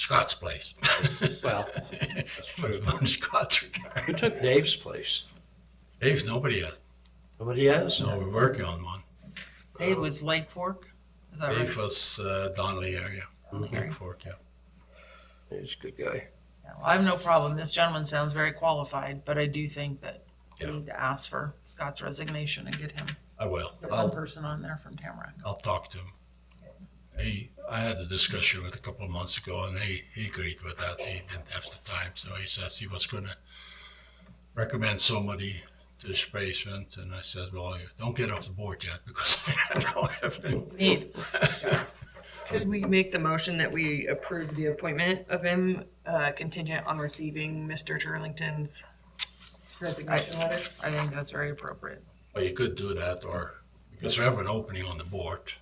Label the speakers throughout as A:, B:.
A: Scott's place.
B: Well,
A: Put it on Scott's
B: who
A: regard.
B: took Dave's place?
A: Dave, nobody has.
B: Nobody has?
A: No, we're working on one.
C: Dave was Lake Fork, is that
A: Dave
C: right?
A: was uh, Donnelly area, Lake
C: Okay.
A: Fork, yeah.
B: He's a good guy.
C: Yeah, well, I have no problem. This gentleman sounds very qualified, but I do think that we
A: Yeah.
C: need to ask for Scott's resignation and get him,
A: I will.
C: get one
A: I'll,
C: person on there from Tamarack.
A: I'll talk to him. He, I had a discussion with a couple of months ago and he, he agreed with that. He didn't have the time, so he says he was gonna recommend somebody to his basement and I said, well, you don't get off the board yet because I don't have any.
D: Need. Could we make the motion that we approve the appointment of him uh, contingent on receiving Mr. Turlington's resignation letter?
C: I think that's very appropriate.
A: Well, you could do that or, because we have an opening on the board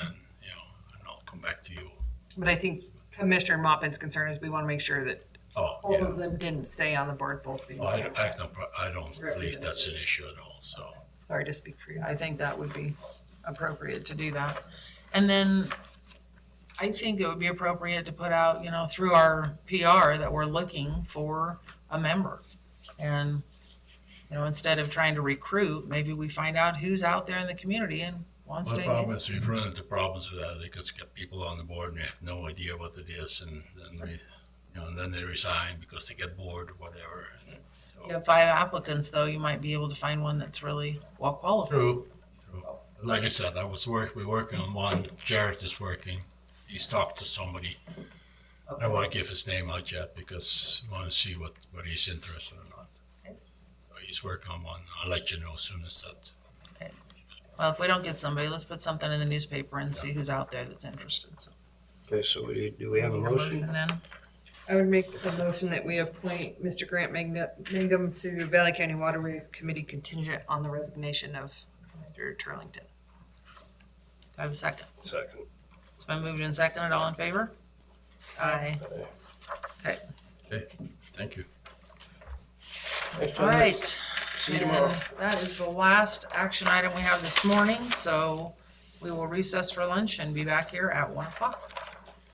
A: and, you know, and I'll come back to you.
D: But I think Commissioner Mopin's concern is we want to make sure that
A: Oh,
D: both
A: yeah.
D: of them didn't stay on the board, both being.
A: Well, I, I have no, pro- I don't believe that's an issue at all, so.
D: Sorry to speak for you.
C: I think that would be appropriate to do that. And then I think it would be appropriate to put out, you know, through our PR that we're looking for a member. And, you know, instead of trying to recruit, maybe we find out who's out there in the community and wants
A: My
C: to.
A: problem is we've run into problems with that because you get people on the board and they have no idea what it is and then they, you know, and then they resign because they get bored or whatever.
C: You have five applicants, though, you might be able to find one that's really well qualified.
A: True, true. Like I said, I was work, we're working on one, Jared is working, he's talked to somebody. I don't wanna give his name out yet because I wanna see what, what he's interested or not. So he's working on one, I'll let you know as soon as that.
C: Well, if we don't get somebody, let's put something in the newspaper and see who's out there that's interested, so.
B: Okay, so we, do we have a motion?
C: And then,
D: I would make the motion that we appoint Mr. Grant Mangum- Mangum to Valley County Waterways Committee contingent on the resignation of Mr. Turlington.
C: do I have a second.
B: Second.
C: It's been moved and seconded. All in favor? Aye. Okay,
A: Okay, thank you.
C: all right.
B: See you tomorrow.
C: And That is the last action item we have this morning, so we will recess for lunch and be back here at one o'clock.